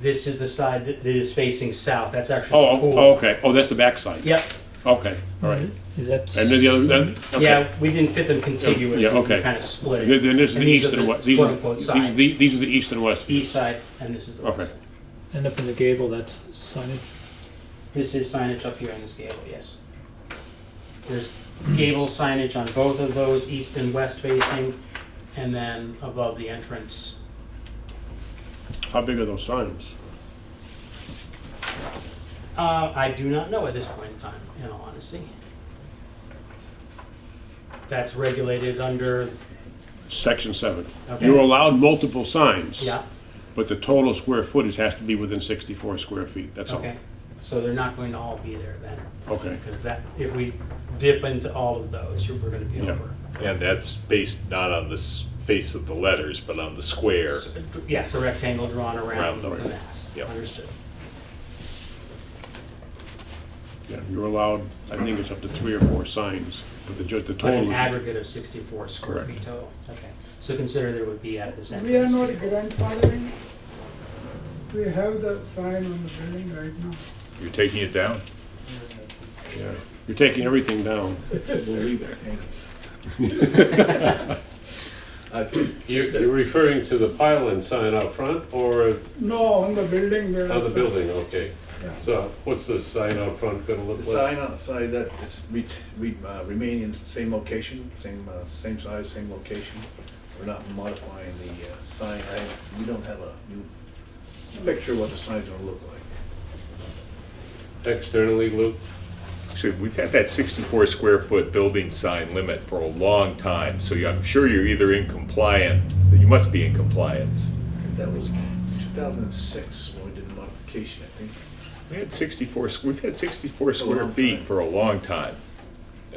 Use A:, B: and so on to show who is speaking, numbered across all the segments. A: This is the side that that is facing south. That's actually
B: Oh,
A: the
B: oh,
A: pool.
B: oh, okay. Oh, that's the backside.
A: Yep.
B: Okay, all right.
C: Is that?
B: And then the other, then, okay.
A: Mm-hmm. Yeah, we didn't fit them contiguous.
B: Yeah,
A: We
B: okay.
A: Kind of split
B: Then
A: it.
B: then this is
A: And
B: the
A: these
B: east
A: are
B: and
A: the
B: west. These are,
A: quote-unquote
B: these are
A: sides.
B: the, these are the east and west.
A: East side, and this is the
B: Okay.
A: west side.
C: And up in the gable, that's signage.
A: This is signage up here on this gable, yes. There's gable signage on both of those, east and west facing, and then above the entrance.
B: How big are those signs?
A: Uh, I do not know at this point in time, in all honesty. That's regulated under,
B: Section seven.
A: Okay.
B: You're allowed multiple signs.
A: yeah,
B: But the total square footage has to be within sixty-four square feet, that's all.
A: okay. So they're not going to all be there then,
B: Okay,
A: because that, if we dip into all of those, we're gonna be
B: Yeah.
A: over.
D: And that's based not on the s- face of the letters, but on the square.
A: S- Yes, a rectangle drawn around
D: Round,
A: the
D: okay.
A: mass,
D: Yep.
A: understood.
B: yeah, you're allowed, I think it's up to three or four signs, but the, ju- the
A: But
B: total
A: an
B: is.
A: aggregate of 64 square
B: Correct.
A: feet total, okay. So consider there would be at this
E: We are
A: entrance.
E: not grandfathering. We have the sign on the building right now.
D: You're taking it down?
B: yeah. You're taking everything down.
F: Uh, You're you're referring to the pylon sign out front or
E: No, on the building.
B: Oh,
E: there
F: on the
E: is a-
F: building, okay.
E: Yeah.
F: So what's the sign out front gonna
G: The
F: look like?
G: sign outside that is re- re- uh, remaining in the same location, same, uh, same size, same location. We're not modifying the uh, sign. I, we don't have a new picture of what the sign's gonna look like.
F: Externally, Luke?
D: Actually, we've had that 64 square foot building sign limit for a long time, so you- I'm sure you're either in compliant, you must be in compliance.
G: That was two thousand and six when we did the modification, I think.
D: We had 64, squ- we've had 64
G: It's a
D: square
G: long
D: feet
G: time.
D: for a long time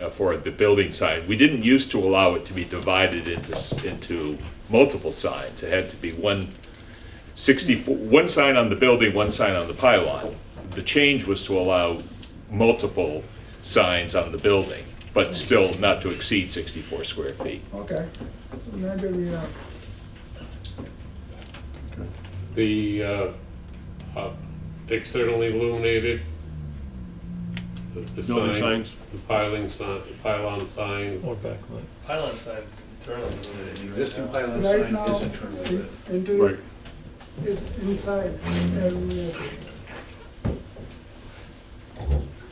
D: uh, for the building sign. We didn't used to allow it to be divided into, s- into multiple signs. It had to be one 64, one sign on the building, one sign on the pylon. The change was to allow multiple signs on the building, but still not to exceed 64 square feet.
E: Okay, maybe we are.
F: The uh, uh, externally illuminated, the- the
B: Building
F: sign,
B: signs.
F: the piling sign, pylon sign,
C: Or backlight.
H: Pylon signs internally
G: The
H: illuminated.
G: existing
H: right
G: pylon
E: Right
G: sign
E: now,
G: is internally lit.
E: i- into,
B: Right.
E: it is inside. and we are-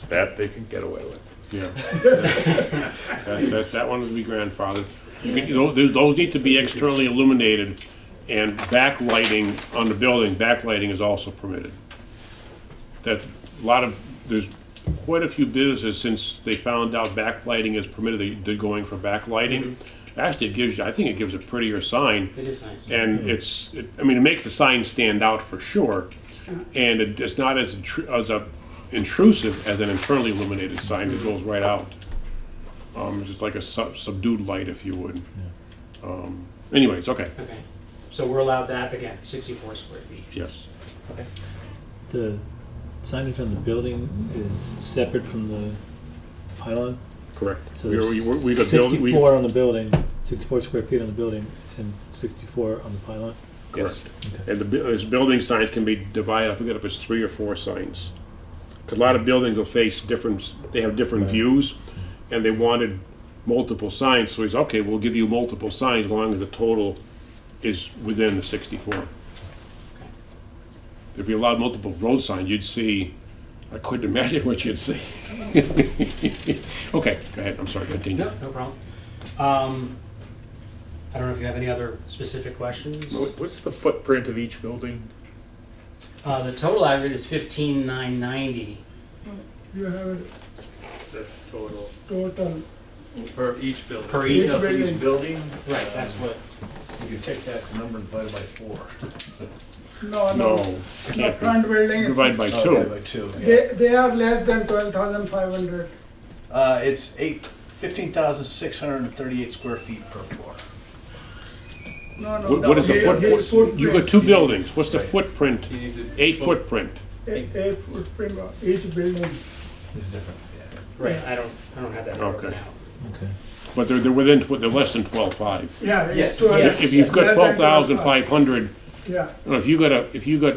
D: That they can get away with.
B: Yeah. That, that, that one would be grandfathered. You could, you know, those, those need to be externally illuminated and backlighting on the building, backlighting is also permitted. That, a lot of, there's quite a few businesses since they found out backlighting is permitted, they, they're going for backlighting. Actually, it gives you, I think it gives a prettier sign.
A: It is nice.
B: And it's, it, I mean, it makes the sign stand out for sure, and it, it's not as, intru- as a intrusive as an internally illuminated sign that goes right out. Um, just like a sub- subdued light, if you would. Um, anyways, okay,
A: Okay, so we're allowed that, again, 64 square feet.
B: yes.
C: The signage on the building is separate from the pylon.
B: Correct.
C: So
B: We, we,
C: there's
B: we got build, we,
C: Sixty-four on the building, sixty-four square feet on the building, and sixty-four on the pylon.
B: correct. And the, bu- those building signs can be divided, I forget if it's three or four signs. 'Cause a lot of buildings will face different, they have different views, and they wanted multiple signs, so he's, okay, we'll give you multiple signs as long as the total is within the sixty-four. If you allowed multiple road signs, you'd see, I couldn't imagine what you'd see. Okay, go ahead, I'm sorry, continue.
A: No, no problem. Um, I don't know if you have any other specific questions?
D: What- What's the footprint of each building?
A: Uh, The total aggregate is 15,990.
E: You have a
H: The total
E: total,
H: for each building.
A: Per
E: Each
G: Each
A: unit.
G: of
E: building.
G: each building,
A: Right, that's what,
G: you take that number and divide by four.
E: no,
B: No,
E: no. The
B: can't be,
E: front building is,
B: divide by
G: Divide
B: two.
G: By two, yeah.
E: they, they are less than 12,500.
G: Uh, it's eight, fifteen thousand six hundred and thirty-eight square feet per floor.
E: No, no.
B: What what is the
E: His- his
B: footprint? You got two buildings, what's the
F: Right.
B: footprint?
H: He needs his-
B: A footprint.
E: footprint, A a footprint of each building.
G: It's different, yeah.
A: right, I don't, I don't have that broken
B: Okay.
A: out.
C: Okay.
B: But they're, they're within, they're less than twelve-five.
E: Yeah, it's
G: Yes.
E: twelve.
A: Yes.
B: If you've got
E: Less than
B: twelve thousand five hundred,
E: Yeah,
B: if you got a, if you got